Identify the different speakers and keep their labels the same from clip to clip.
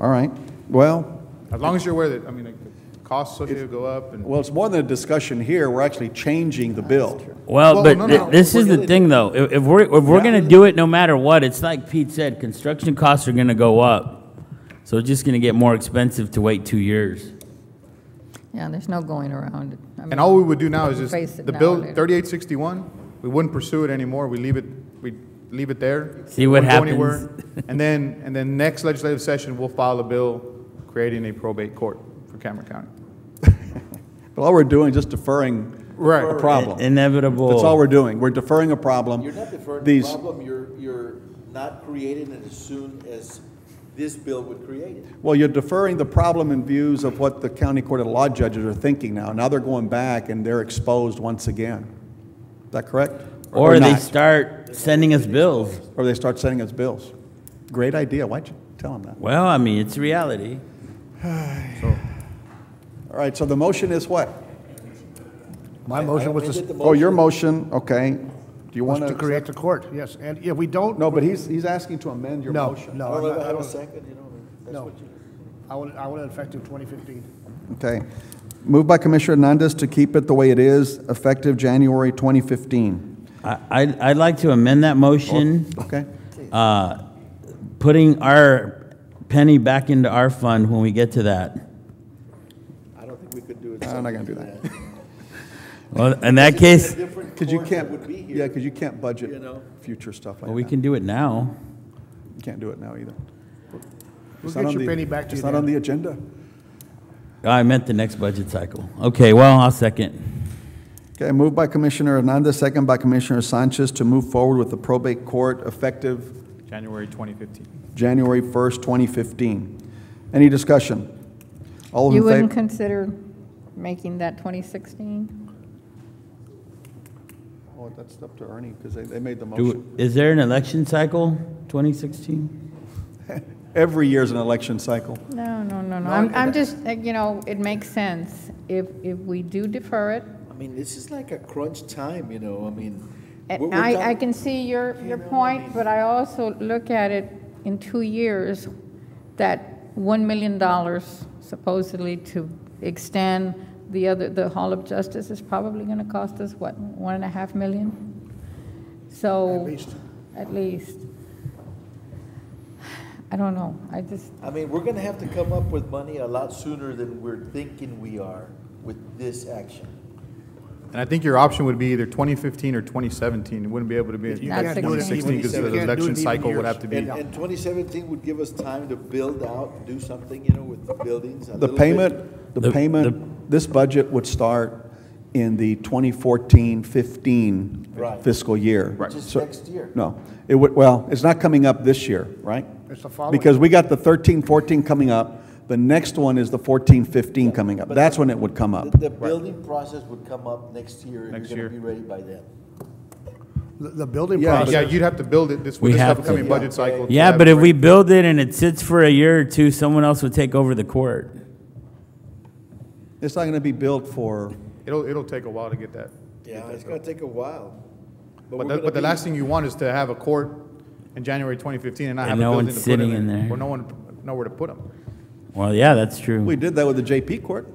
Speaker 1: All right. Well,
Speaker 2: As long as you're aware that, I mean, like, the costs associated go up and.
Speaker 1: well, it's more than a discussion here. We're actually changing the bill.
Speaker 2: Well,
Speaker 3: Well, but
Speaker 2: no,
Speaker 3: th-
Speaker 2: no,
Speaker 3: this
Speaker 2: we're
Speaker 3: is the
Speaker 2: gonna-
Speaker 3: thing, though. If, if we're if we're gonna do it, no matter what, it's like Pete said, construction costs are gonna go up, so it's just gonna get more expensive to wait two years.
Speaker 4: Yeah, there's no going around. I mean,
Speaker 2: And all we would do now is
Speaker 4: Face it
Speaker 2: just, the
Speaker 4: now
Speaker 2: bill,
Speaker 4: or later.
Speaker 2: 3861, we wouldn't pursue it anymore, we leave it, we leave it there.
Speaker 3: See what
Speaker 2: Wouldn't go
Speaker 3: happens.
Speaker 2: anywhere. And then, and then next legislative session, we'll file a bill creating a probate court for Cameron County.
Speaker 1: But all we're doing is just deferring
Speaker 2: Right.
Speaker 1: a problem.
Speaker 3: Inevitable.
Speaker 1: That's all we're doing. We're deferring a problem.
Speaker 5: You're not deferring the
Speaker 1: These-
Speaker 5: problem, you're, you're not creating it as soon as this bill would create it.
Speaker 1: Well, you're deferring the problem in views of what the county court of law judges are thinking now. Now they're going back and they're exposed once again. Is that correct?
Speaker 3: Or they
Speaker 1: not?
Speaker 3: start sending us bills.
Speaker 1: Or they start sending us bills. Great idea. Why'd you tell them that?
Speaker 3: Well, I mean, it's reality.
Speaker 1: All right, so the motion is what?
Speaker 6: My motion was to,
Speaker 1: Oh, your motion, okay. Do you
Speaker 6: was
Speaker 1: want
Speaker 6: to create the court, yes, and if we don't, no,
Speaker 1: No, but he's, he's asking to amend your
Speaker 6: no,
Speaker 1: motion.
Speaker 6: no,
Speaker 5: I
Speaker 6: I'm
Speaker 5: don't
Speaker 6: not-
Speaker 5: ever
Speaker 6: I
Speaker 5: have a
Speaker 6: don't,
Speaker 5: second, you know, Oh, that's
Speaker 6: no.
Speaker 5: what you.
Speaker 6: I want, it- I want it effective 2015.
Speaker 1: Okay. Moved by Commissioner Hernandez to keep it the way it is, effective January 2015.
Speaker 3: I I'd, I'd like to amend that motion,
Speaker 1: Oh, Okay?
Speaker 3: uh, putting our penny back into our fund when we get to that.
Speaker 5: I don't think we could do it.
Speaker 1: I'm not gonna do that.
Speaker 3: Well, in that case,
Speaker 1: Because you can't,
Speaker 5: Would be here.
Speaker 1: yeah, because you can't
Speaker 5: you
Speaker 1: budget
Speaker 5: know?
Speaker 1: future stuff like
Speaker 3: well,
Speaker 1: that.
Speaker 3: we can do it now.
Speaker 1: You can't do it now either.
Speaker 6: We'll
Speaker 1: It's not
Speaker 6: get
Speaker 1: on
Speaker 6: your
Speaker 1: the-
Speaker 6: penny back to you
Speaker 1: It's not
Speaker 6: then.
Speaker 1: on the agenda.
Speaker 3: I meant the next budget cycle. Okay, well, I'll second.
Speaker 1: Okay, moved by Commissioner Hernandez, second by Commissioner Sanchez to move forward with the probate court effective
Speaker 2: January 2015.
Speaker 1: January 1st, 2015. Any discussion? All those
Speaker 4: You
Speaker 1: in favor?
Speaker 4: wouldn't consider making that 2016?
Speaker 1: Oh, that's up to Ernie, because they, they made the motion.
Speaker 3: Do, is there an election cycle, 2016?
Speaker 1: Every year's an election cycle.
Speaker 4: No, no, no, no. I'm, I'm just, uh, you know, it makes sense. If, if we do defer it,
Speaker 5: I mean, this is like a crunch time, you know, I mean. we're-
Speaker 4: and
Speaker 5: we're
Speaker 4: I, I
Speaker 5: talking-
Speaker 4: can see your, your point, but I also look at it in two years, that $1 million supposedly to extend the other, the Hall of Justice is probably going to cost us, what, one and a half million? So.
Speaker 6: At least.
Speaker 4: At least. I don't know. I just,
Speaker 5: I mean, we're gonna have to come up with money a lot sooner than we're thinking we are with this action.
Speaker 2: And I think your option would be either 2015 or 2017, it wouldn't be able to be
Speaker 6: You
Speaker 4: Not
Speaker 6: can't do it in
Speaker 2: 2016
Speaker 6: even-
Speaker 2: because
Speaker 6: you
Speaker 2: the
Speaker 6: can't do it in
Speaker 2: election
Speaker 6: even
Speaker 2: cycle would
Speaker 6: years. uh,
Speaker 2: have to be.
Speaker 5: And, and twenty seventeen would give us time to build out, do something, you know, with the buildings a
Speaker 1: The
Speaker 5: little bit.
Speaker 1: payment, the
Speaker 3: The-
Speaker 1: payment, this budget would start in the 2014-15
Speaker 5: Right.
Speaker 1: fiscal year.
Speaker 5: Which is
Speaker 1: So-
Speaker 5: next year.
Speaker 1: No, it would, well, it's not coming up this year, right?
Speaker 6: It's the following.
Speaker 1: Because we got the 13-14 coming up, the next one is the 14-15 coming up.
Speaker 5: But
Speaker 1: That's
Speaker 5: the-
Speaker 1: when it would come up.
Speaker 5: The, the building process would come up next year, and
Speaker 2: Um, Next
Speaker 5: you're
Speaker 2: year.
Speaker 5: gonna be ready by then.
Speaker 6: The- The building
Speaker 1: Yeah,
Speaker 2: Yeah,
Speaker 6: process,
Speaker 2: you'd have to build it this,
Speaker 3: We
Speaker 2: with this
Speaker 3: have to.
Speaker 2: upcoming budget cycle. to
Speaker 3: Yeah,
Speaker 2: have
Speaker 3: but
Speaker 2: it
Speaker 3: if
Speaker 2: ready.
Speaker 3: we build it and it sits for a year or two, someone else would take over the court.
Speaker 1: It's not going to be built for,
Speaker 2: It'll, it'll take a while to get that.
Speaker 5: Yeah, it's gonna take a while.
Speaker 2: But
Speaker 5: we're
Speaker 2: the,
Speaker 5: gonna
Speaker 2: but the
Speaker 5: be-
Speaker 2: last thing you want is to have a court in January 2015 and not
Speaker 3: And
Speaker 2: have a
Speaker 3: no
Speaker 2: building to
Speaker 3: one's
Speaker 2: put them
Speaker 3: sitting in there.
Speaker 2: Or no one, nowhere to put them.
Speaker 3: Well, yeah, that's true.
Speaker 1: we did that with the JP court.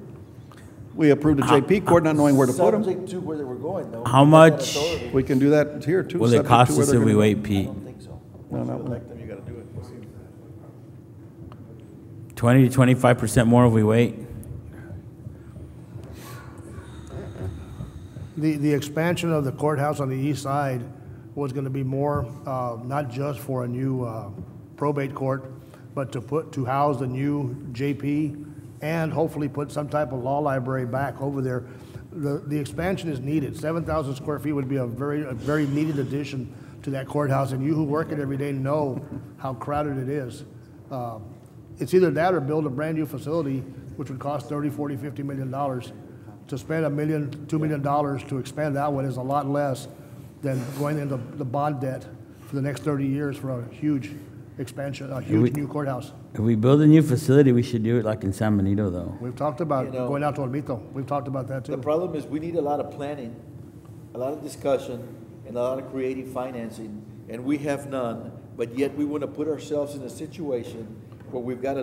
Speaker 1: We approved the JP
Speaker 3: Ah,
Speaker 1: court not knowing where to put them.
Speaker 5: Subject to where they were going, though.
Speaker 3: How
Speaker 5: We got that
Speaker 3: much
Speaker 5: authority.
Speaker 1: We can do that here, too.
Speaker 3: Will
Speaker 1: subject
Speaker 3: it
Speaker 1: to
Speaker 3: cost
Speaker 1: where
Speaker 3: us
Speaker 1: they're
Speaker 3: if we
Speaker 1: gonna-
Speaker 3: wait,
Speaker 5: I
Speaker 3: Pete?
Speaker 5: don't think so.
Speaker 1: No,
Speaker 5: Once you
Speaker 1: no.
Speaker 5: elect them, you gotta do it.
Speaker 3: 20 to 25% more if we wait?
Speaker 6: the, the expansion of the courthouse on the east side was going to be more, uh, not just for a new uh, probate court, but to put, to house the new JP and hopefully put some type of law library back over there. The, the expansion is needed. 7,000 square feet would be a very, a very needed addition to that courthouse, and you who work it every day know how crowded it is. Uh, It's either that or build a brand-new facility, which would cost 30, 40, 50 million dollars. To spend a million, two million dollars to expand that one is a lot less than going into the bond debt for the next 30 years for a huge expansion, a huge new courthouse.
Speaker 3: If we build a new facility, we should do it like in San Benito, though.
Speaker 6: We've talked about
Speaker 5: You know-
Speaker 6: going out to Olmito. We've talked about that,
Speaker 5: The
Speaker 6: too.
Speaker 5: problem is, we need a lot of planning, a lot of discussion, and a lot of creative financing, and we have none, but yet we wanna put ourselves in a situation where we've gotta